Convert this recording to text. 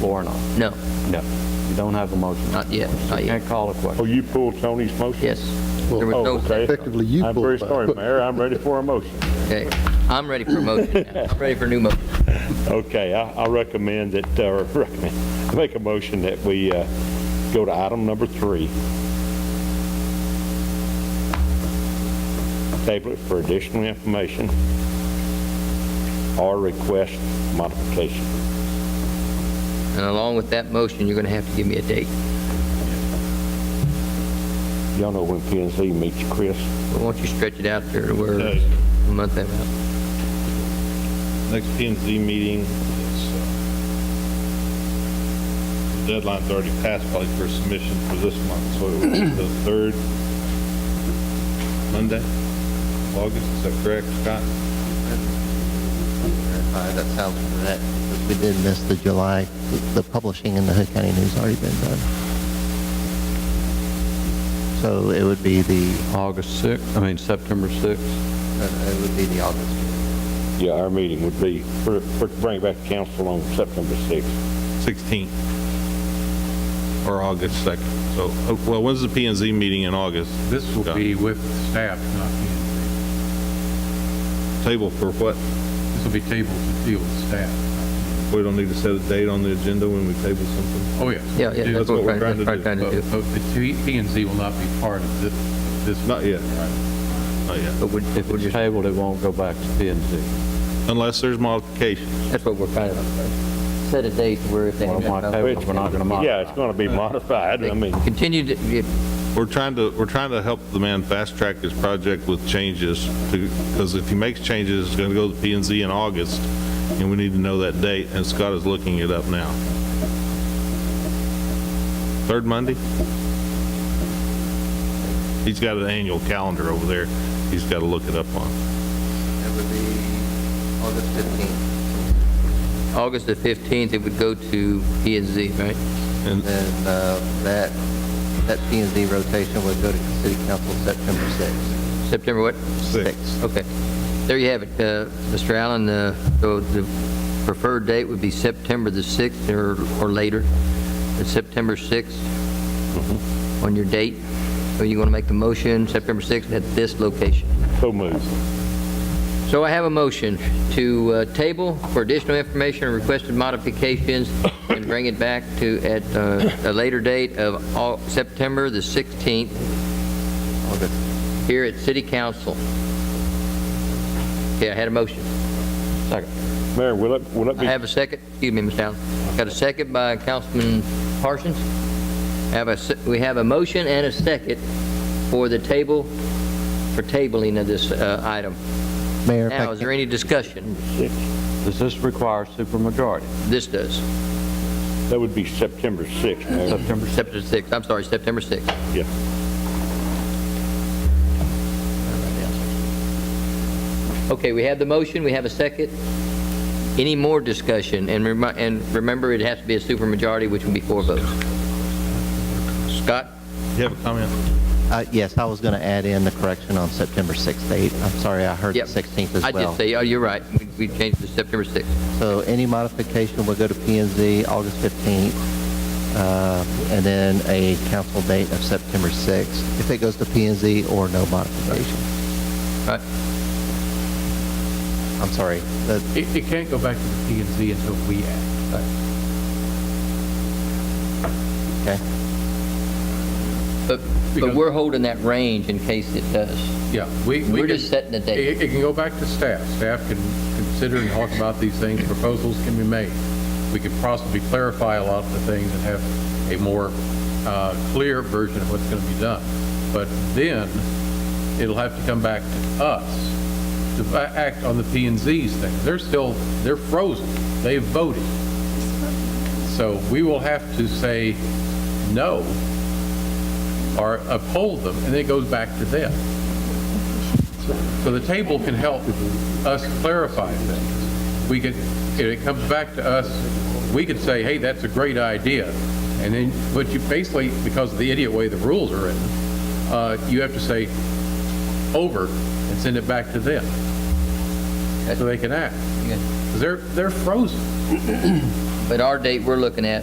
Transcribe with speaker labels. Speaker 1: or not?
Speaker 2: No,
Speaker 1: No. You don't have a motion.
Speaker 2: not yet, not yet.
Speaker 1: Can't call a question.
Speaker 3: Oh, you pulled Tony's motion?
Speaker 2: Yes. There was
Speaker 3: Oh,
Speaker 2: no
Speaker 3: okay.
Speaker 4: Effectively, you
Speaker 3: I'm
Speaker 4: pulled
Speaker 3: very
Speaker 4: mine.
Speaker 3: sorry, Mayor, I'm ready for a motion.
Speaker 2: Okay, I'm ready for a motion now. I'm ready for a new motion.
Speaker 3: Okay, I I recommend that, or recommend, I make a motion that we uh, go to item number three. Table it for additional information or request modification.
Speaker 2: And along with that motion, you're going to have to give me a date.
Speaker 3: Y'all know when P and Z meets Chris?
Speaker 2: But Why don't you stretch it out there to where
Speaker 5: Okay.
Speaker 2: a month out?
Speaker 5: Next P and Z meeting is, uh, deadline's already passed probably for submission for this month, so it would be the third Monday, of August, is that correct, Scott?
Speaker 6: Uh, That sounds correct. We did miss the July, the publishing in the Hood County News already been done. So it would be the, uh,
Speaker 1: August 6th, I mean, September 6th.
Speaker 6: it would be the August.
Speaker 3: Yeah, our meeting would be, for for- bring back council on September 6th.
Speaker 5: 16th or August 2nd. So, oh, well, when's the P and Z meeting in August?
Speaker 7: This will
Speaker 5: Scott?
Speaker 7: be with staff, not me.
Speaker 5: Table for what?
Speaker 7: This will be tabled to deal with staff.
Speaker 5: We don't need to set a date on the agenda when we table something?
Speaker 7: Oh, yes.
Speaker 2: Yeah, yeah,
Speaker 5: Dude,
Speaker 2: that's what we're trying that's what we're trying to
Speaker 7: But
Speaker 2: do.
Speaker 7: but the P and Z will not be part of this, this.
Speaker 5: Not yet.
Speaker 7: Right.
Speaker 5: Not yet.
Speaker 2: But we
Speaker 1: If
Speaker 2: we're
Speaker 1: it's
Speaker 2: just,
Speaker 1: tabled, it won't go back to P and Z.
Speaker 5: Unless there's modifications.
Speaker 2: that's what we're trying to, set a date where if they.
Speaker 1: Well, my table, we're not going to modify.
Speaker 3: Yeah, it's going to be modified, I mean.
Speaker 2: Continue to, if-
Speaker 5: We're trying to, we're trying to help the man fast track his project with changes because if he makes changes, it's going to go to P and Z in August and we need to know that date and Scott is looking it up now. Third Monday? He's got an annual calendar over there. He's got to look it up on.
Speaker 6: It would be August 15th,
Speaker 2: August the 15th, it would go to P and Z, right?
Speaker 5: And
Speaker 6: and uh, that, that P and Z rotation would go to City Council September 6th.
Speaker 2: September what?
Speaker 5: Six.
Speaker 2: Okay. There you have it, uh, Mr. Allen. uh, So the preferred date would be September the 6th or or later, It's September 6th on your date. So you want to make the motion, September 6th at this location.
Speaker 3: So moved.
Speaker 2: So I have a motion to uh, table for additional information or requested modifications and bring it back to at uh, a later date of Au- September the 16th here at City Council. Okay, I had a motion.
Speaker 1: Second.
Speaker 3: Mayor, will it, will it
Speaker 2: I
Speaker 3: be
Speaker 2: have a second, excuse me, Ms. Allen. Got a second by Councilman Parsons. Have a, se- we have a motion and a second for the table, for tabling of this uh, item.
Speaker 6: Mayor, if I
Speaker 2: Now, is
Speaker 6: can-
Speaker 2: there any discussion?
Speaker 1: Does this require supermajority?
Speaker 2: This does.
Speaker 3: That would be September 6th, Mayor.
Speaker 1: September 6th.
Speaker 2: September 6th, I'm sorry, September 6th.
Speaker 3: Yeah.
Speaker 2: Okay, we have the motion, we have a second. Any more discussion? And remi- and remember, it has to be a supermajority, which would be four votes. Scott?
Speaker 5: you have a comment?
Speaker 6: uh, yes, I was going to add in the correction on September 6th date. I'm sorry, I heard the
Speaker 2: Yep.
Speaker 6: 16th as well.
Speaker 2: I did say, oh, you're right, We- we changed to September 6th.
Speaker 6: So any modification will go to P and Z August 15th, uh, and then a council date of September 6th, if it goes to P and Z or no modification.
Speaker 2: All right.
Speaker 6: I'm sorry, the-
Speaker 7: It, it can't go back to the P and Z until we act.
Speaker 6: okay?
Speaker 2: But, but
Speaker 7: Because-
Speaker 2: we're holding that range in case it does.
Speaker 7: Yeah, we. we
Speaker 2: We're
Speaker 7: can-
Speaker 2: just setting the date.
Speaker 7: It, it can go back to staff. Staff can consider and talk about these things. Proposals can be made. We could possibly clarify a lot of the things and have a more uh, clear version of what's going to be done. But then it'll have to come back to us to a- act on the P and Z's thing. They're still, they're frozen. They voted. So we will have to say no or uphold them, and it goes back to them. So the table can help us clarify things. We could, if it comes back to us, we could say, hey, that's a great idea. And then, but you basically, because of the idiot way the rules are written, uh, you have to say over and send it back to them. So they can act. 'Cause They're, they're frozen.
Speaker 2: But our date we're looking at